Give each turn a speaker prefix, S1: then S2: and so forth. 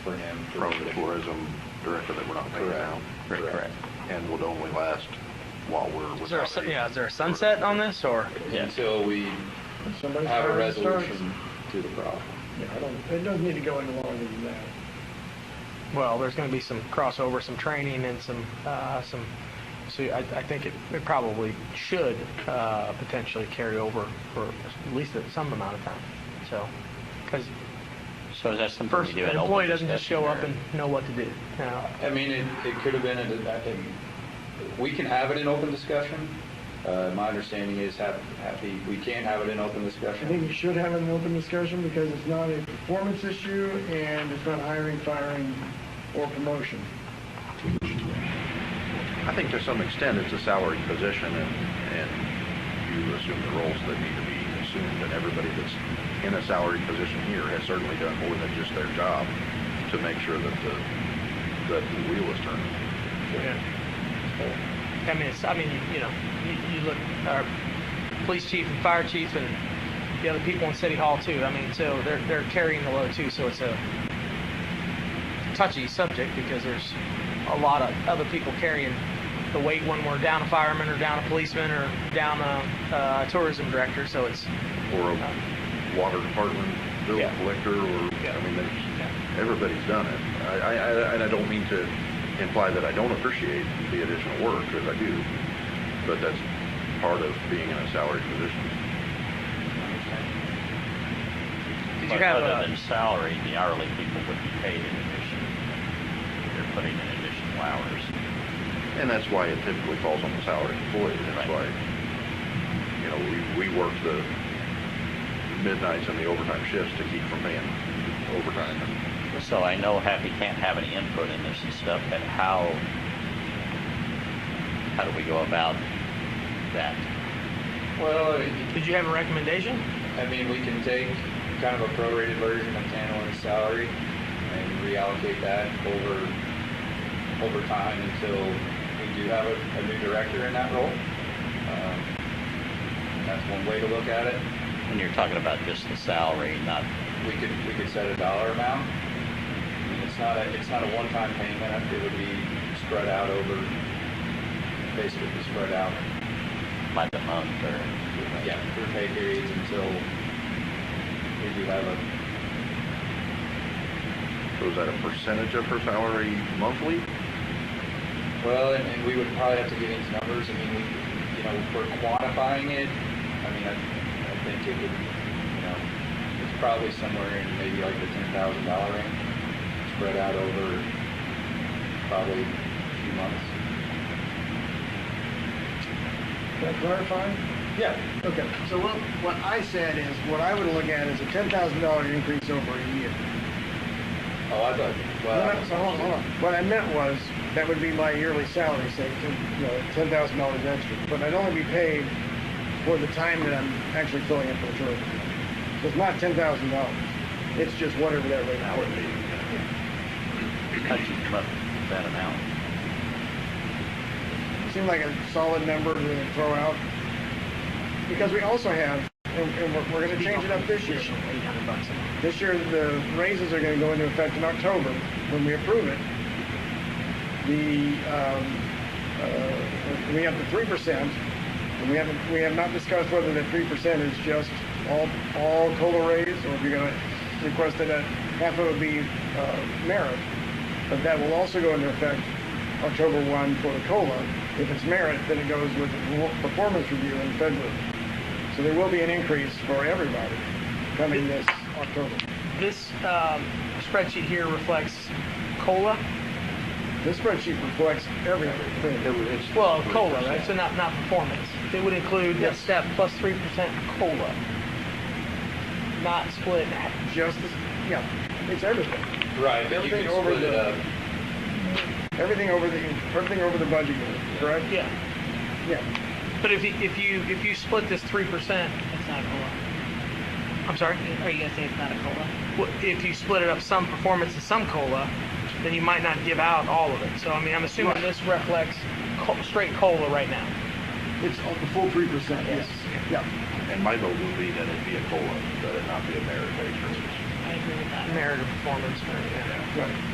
S1: for him. to-
S2: from the tourism director that we're not paying
S1: Correct.
S2: now.
S3: Correct, correct.
S2: And would only last while we're
S4: Is there a,
S2: without
S4: su-
S2: the.
S4: yeah, is there a sunset on this or?
S1: Until we
S5: Somebody's
S1: have a
S5: hiring and starts.
S1: resolution to the problem.
S5: Yeah, I don't, it doesn't need to go any longer than that.
S4: Well, there's going to be some crossover, some training, and some uh, some. So I, I think it, it probably should uh, potentially carry over for at least some amount of time. So, because
S3: So is that something we
S4: first
S3: do at
S4: an
S3: open
S4: employee doesn't just
S3: discussion
S4: show up
S3: or-
S4: and know what to do. You know,
S1: I mean, it, it could have been, a- I think, we can have it in open discussion. Uh, my understanding is hap- happy, we can have it in open
S5: I think
S1: discussion.
S5: you should have an open discussion because it's not a performance issue and it's not hiring, firing, or promotion.
S2: I think to some extent, it's a salary position and, and you assume the roles that need to be assumed and everybody that's in a salary position here has certainly done more than just their job to make sure that the, that the wheel is turning.
S4: I mean, it's, I mean, you know, you, you look our police chief and fire chief and the other people in city hall too. I mean, so they're they're carrying the load too. So it's a touchy subject because there's a lot of other people carrying the weight when we're down a fireman or down a policeman or down a, uh tourism director. So it's
S2: or a water department bill
S4: Yeah.
S2: collector, or, I mean, there's, everybody's done it. I, I, I- and I don't mean to imply that I don't appreciate the additional work, because I do, but that's part of being in a salary position.
S4: did you
S3: But
S4: have
S3: other
S4: a,
S3: than salary, the hourly people would be paid in addition. They're putting in additional hours.
S2: And that's why it typically falls on the salary employee, that's why,
S3: Right.
S2: you know, we, we work the midnights and the overtime shifts to keep from paying overtime and
S3: So I know Happy can't have any input in this and stuff, but how, how do we go about that?
S1: Well, I-
S4: did you have a recommendation?
S1: I mean, we can take kind of a prorated version of Tanner's salary and reallocate that over, over time until we do have a, a new director in that role. Um, That's one way to look at it.
S3: When you're talking about just the salary, not,
S1: we could, we could set a dollar amount. I mean, It's not a, it's not a one-time payment, it would be spread out over, basically spread out,
S3: by the month or.
S1: yeah, for pay periods until we do have a,
S2: So is that a percentage of her salary monthly?
S1: well, and, and we would probably have to get into numbers, I mean, we, you know, if we're quantifying it, I mean, I, I think it would, you know, it's probably somewhere in maybe like the ten thousand dollar range, spread out over probably a few months.
S5: Is that clarifying?
S1: Yeah,
S5: Okay, so what, what I said is, what I would look at is a ten thousand dollar increase over a year.
S1: Oh, I thought.
S5: No,
S1: Well,
S5: no, so hold on, hold on. What I meant was, that would be my yearly salary, say, ten- you know, ten thousand dollars extra, but I'd only be paid for the time that I'm actually filling in for the tourism. So it's not ten thousand dollars, it's just whatever that rate
S2: That would be,
S5: is.
S3: How'd you come up with that amount?
S5: It seemed like a solid number to throw out, because we also have, and, and we're, we're gonna change it up this year.
S4: Eight hundred bucks a month.
S5: This year, the raises are going to go into effect in October when we approve it. The, um, uh, we have the three percent, and we haven't, we have not discussed whether the three percent is just all, all COLA raise, or if you're going to request that a half of it be, uh, merit. But that will also go into effect October one for the COLA. If it's merit, then it goes with the performance review in February. So there will be an increase for everybody coming this October.
S4: This um, spreadsheet here reflects cola.
S5: This spreadsheet reflects everything.
S2: it's-
S4: Well, COLA, right? So not, not performance. It would include that
S5: Yes.
S4: step plus 3% COLA. Not split. in half.
S5: Just, this- yeah, it's everything.
S1: Right, but you
S5: Everything
S1: can
S5: over
S1: split it
S5: the-
S1: up.
S5: Everything over the, everything over the budget, year, correct?
S4: Yeah.
S5: Yeah.
S4: But if you, if you, if you split this 3%,
S6: It's not a cola.
S4: I'm sorry,
S6: Are you gonna say it's not a cola?
S4: well, if you split it up some performance and some COLA, then you might not give out all of it. So, I mean, I'm assuming this reflects co- straight COLA right now.
S5: It's all- the full three percent, yes. Yeah.
S2: And my vote would be that it be a COLA, that it not be a merit-based raise.
S6: I agree with that.
S4: merit or performance, or, yeah.
S5: Right.